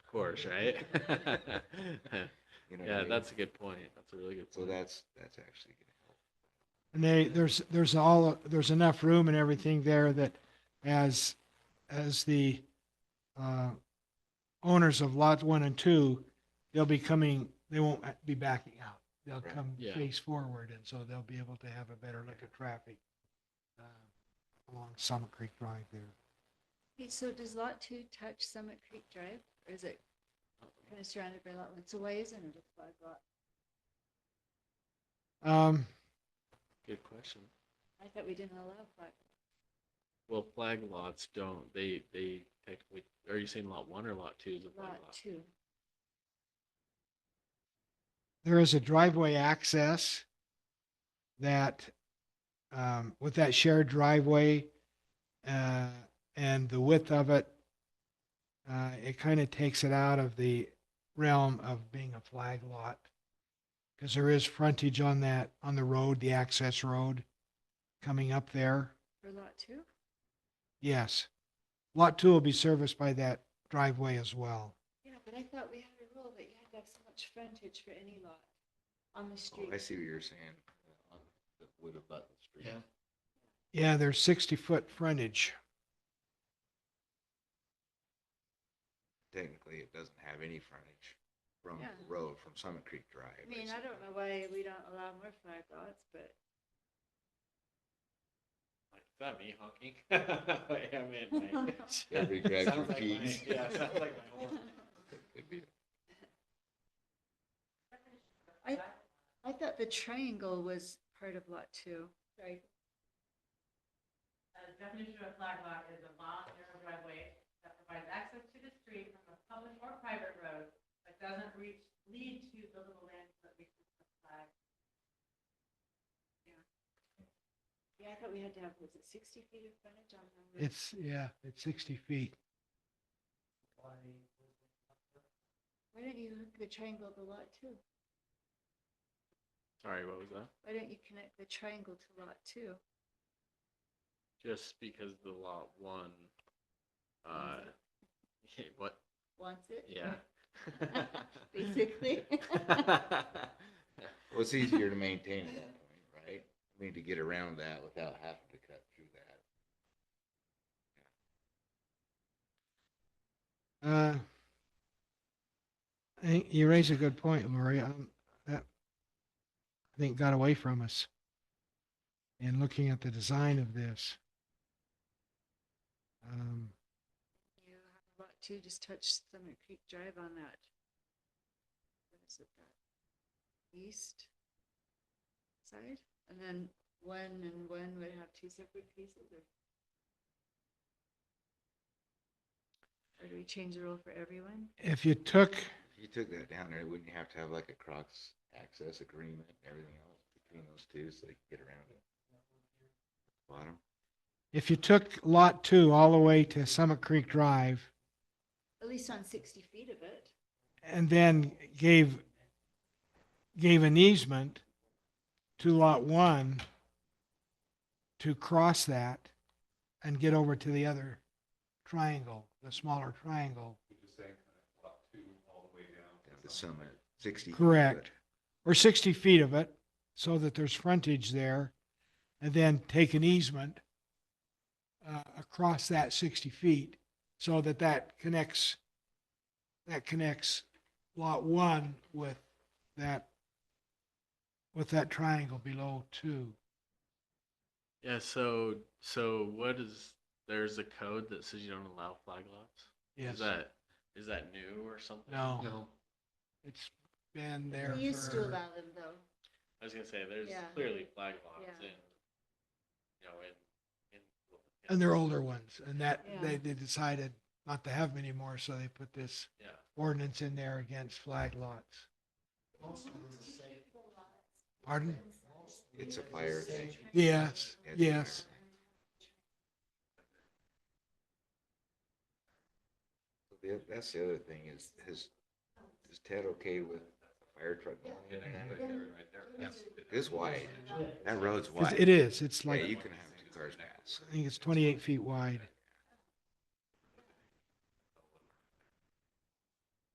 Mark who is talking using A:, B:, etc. A: course, right?
B: You know what I
A: Yeah,
B: mean?
A: that's a good point. That's a really good
B: So
A: point.
B: that's, that's actually gonna help.
C: And they, there's, there's all, there's enough room and everything there that as, as the uh, owners of lot one and two, they'll be coming, they won't be backing out. They'll
B: Right.
C: come
A: Yeah.
C: face forward and so they'll be able to have a better look at traffic uh, along Summit Creek Drive there.
D: Okay, so does lot two touch Summit Creek Drive, or is it kind of surrounded by lot one? So why isn't it a flag lot?
C: Um,
A: Good question.
D: I thought we didn't allow flag.
A: Well, flag lots don't, they, they technically, are you saying lot one or lot two is a flag
D: Lot
A: lot?
D: two.
C: there is a driveway access that, um, with that shared driveway, uh, and the width of it, uh, it kind of takes it out of the realm of being a flag lot. Cause there is frontage on that, on the road, the access road coming up there.
D: For lot two?
C: Yes. Lot two will be serviced by that driveway as well.
D: Yeah, but I thought we had a rule that you had to have so much frontage for any lot on
B: Oh,
D: the
B: I
D: street.
B: see what you're saying. uh, on- That would have buttoned the street.
A: Yeah.
C: Yeah, there's sixty foot frontage.
B: Technically, it doesn't have any frontage from
D: Yeah.
B: the road, from Summit Creek Drive.
D: I mean, I don't know why we don't allow more flag lots, but
A: Like, Is that me honking? Yeah, man, my-
B: basically. Every drive
A: Sounds
B: through
A: like my-
B: Keats.
A: Yeah, sounds like my horn.
B: Oh. It'd be-
D: I, I thought the triangle was part of lot two. Right.
E: The definition of a flag lot is a lot or a driveway that provides access to the street from a public or private road, but doesn't reach, lead to buildable land that reaches the flag.
D: Yeah, I thought we had to have, was it sixty feet of frontage on the? road?
C: It's, yeah, it's sixty feet.
D: Why don't you hook the triangle to lot two?
A: Sorry, what was that?
D: Why don't you connect the triangle to lot two?
A: Just because the lot one, uh, what,
D: Wants it?
A: yeah.
D: Basically.
B: Well, it's easier to maintain at that point, right? I mean, to get around that without having to cut through that.
C: Uh, I think you raise a good point, Lori. Um, that I think got away from us in looking at the design of this. Um,
D: You have lot two, just touch Summit Creek Drive on that. What is it, that east side? And then one and one would have two separate pieces or? Or do we change the rule for everyone?
C: if you took,
B: If you took that down there, wouldn't you have to have like a cross access agreement and everything else between those two so they can get around it? Bottom,
C: if you took lot two all the way to Summit Creek Drive
D: At least on sixty feet of it.
C: and then gave, gave an easement to lot one to cross that and get over to the other triangle, the smaller triangle.
B: at the summit, sixty. feet, but
C: Correct. Or 60 feet of it so that there's frontage there and then take an easement uh, across that 60 feet so that that connects, that connects lot one with that, with that triangle below two.
A: Yeah, so, so what is, there's a code that says you don't allow flag lots? Is
C: Yes.
A: that, is that new or something?
C: No. It's been there
D: We used to
C: for-
D: allow them though.
A: I was gonna say, there's
D: Yeah.
A: clearly flag lots
D: Yeah.
A: in, you know, in. in-
C: And they're older ones and that,
D: Yeah.
C: they, they decided not to have them anymore, so they put this
A: Yeah,
C: ordinance in there against flag lots. Pardon?
B: It's a fire thing.
C: Yes,
B: It's a
C: yes.
B: fire thing. So the- That's the other thing is, is, is Ted okay with a fire truck going in and out? It's wide. That road's
C: It's-
B: wide.
C: It is, it's
B: Yeah,
C: like,
B: you
C: I
B: can have two cars pass.
C: think it's 28 feet wide.